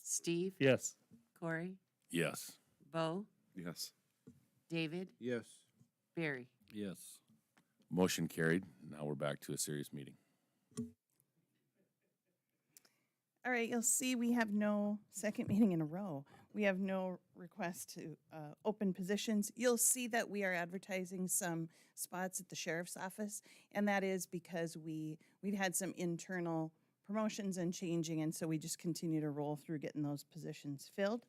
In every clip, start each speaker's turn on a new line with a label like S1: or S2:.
S1: Steve,
S2: Yes.
S1: Corey,
S3: Yes.
S1: Bo,
S4: Yes.
S1: David,
S5: Yes.
S1: Barry.
S5: Yes.
S3: Motion carried. Now we're back to a serious meeting.
S6: All right, you'll see we have no second meeting in a row. We have no request to uh, open positions. You'll see that we are advertising some spots at the sheriff's office, and that is because we, we've had some internal promotions and changing, and so we just continue to roll through getting those positions filled.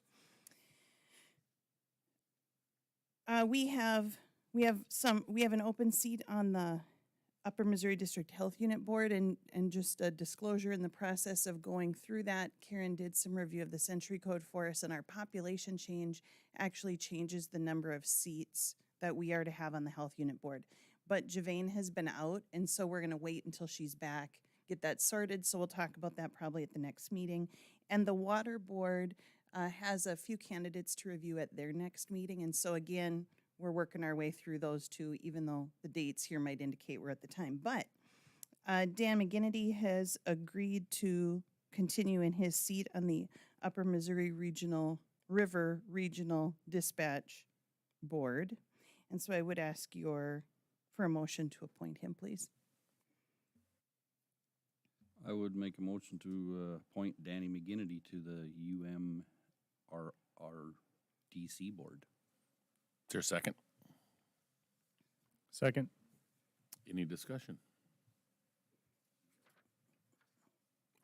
S6: Uh, We have, we have some, we have an open seat on the Upper Missouri District Health Unit Board, and, and just a disclosure in the process of going through that, Karen did some review of the Century Code for us, and our population change actually changes the number of seats that we are to have on the Health Unit Board. But Javane has been out, and so we're gonna wait until she's back, get that sorted, so we'll talk about that probably at the next meeting. And the Water Board, uh, has a few candidates to review at their next meeting, and so again, we're working our way through those two, even though the dates here might indicate we're at the time. But uh, Dan McGinnity has agreed to continue in his seat on the Upper Missouri Regional River Regional Dispatch Board. And so I would ask your, for a motion to appoint him, please.
S5: I would make a motion to uh, appoint Danny McGinnity to the UMRRDC board.
S3: Is there a second?
S2: Second.
S3: Any discussion?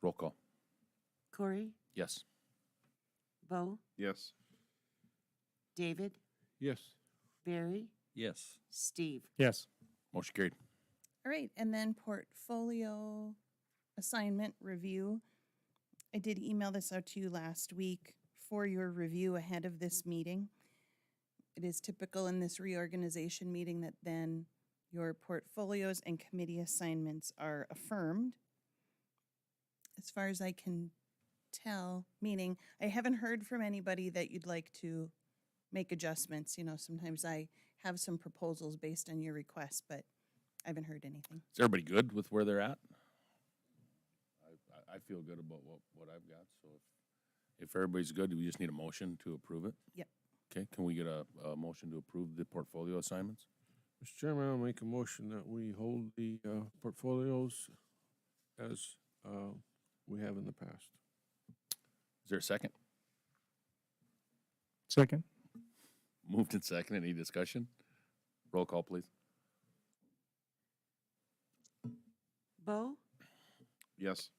S3: Roll call.
S1: Corey,
S3: Yes.
S1: Bo,
S4: Yes.
S1: David,
S5: Yes.
S1: Barry,
S5: Yes.
S1: Steve.
S2: Yes.
S3: Motion carried.
S6: All right, and then portfolio assignment review. I did email this out to you last week for your review ahead of this meeting. It is typical in this reorganization meeting that then your portfolios and committee assignments are affirmed. As far as I can tell, meaning I haven't heard from anybody that you'd like to make adjustments. You know, sometimes I have some proposals based on your request, but I haven't heard anything.
S3: Is everybody good with where they're at? I, I- I feel good about what, what I've got, so if, if everybody's good, do we just need a motion to approve it?
S6: Yep.
S3: Okay, can we get a, a motion to approve the portfolio assignments?
S7: Mr. Chairman, I'll make a motion that we hold the uh, portfolios as uh, we have in the past.
S3: Is there a second?
S2: Second.
S3: Moved and second, any discussion? Roll call, please.
S1: Bo,
S4: Yes.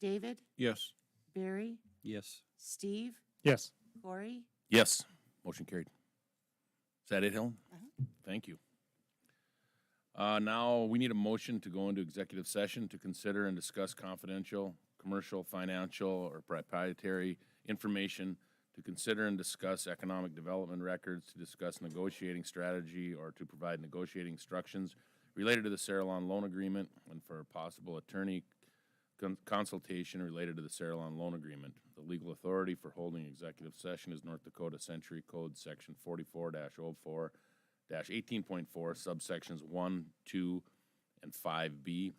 S1: David,
S7: Yes.
S1: Barry,
S5: Yes.
S1: Steve,
S2: Yes.
S1: Corey,
S3: Yes. Motion carried. Is that it, Helen? Thank you. Uh, now, we need a motion to go into executive session to consider and discuss confidential, commercial, financial, or proprietary information, to consider and discuss economic development records, to discuss negotiating strategy, or to provide negotiating instructions related to the Saralon loan agreement, and for possible attorney con- consultation related to the Saralon loan agreement. The legal authority for holding executive session is North Dakota Century Code, Section forty-four 4 eighteen point four, subsections one, two, and five B,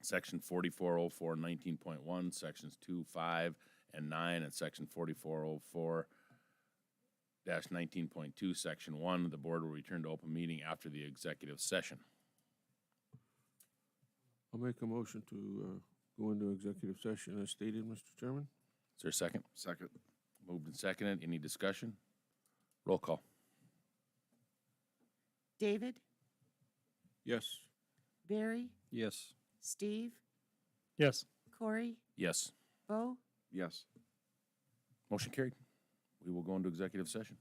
S3: Section 4404 19.1, Sections two, five, and nine, and Section forty-four oh four nineteen point two, Section one. The board will return to open meeting after the executive session.
S7: I'll make a motion to uh, go into executive session as stated, Mr. Chairman.
S3: Is there a second?
S4: Second.
S3: Moved and seconded. Any discussion? Roll call.
S1: David,
S7: Yes.
S1: Barry,
S5: Yes.
S1: Steve,
S2: Yes.
S1: Corey,
S3: Yes.
S1: Bo,
S4: Yes.
S3: Motion carried. We will go into executive session.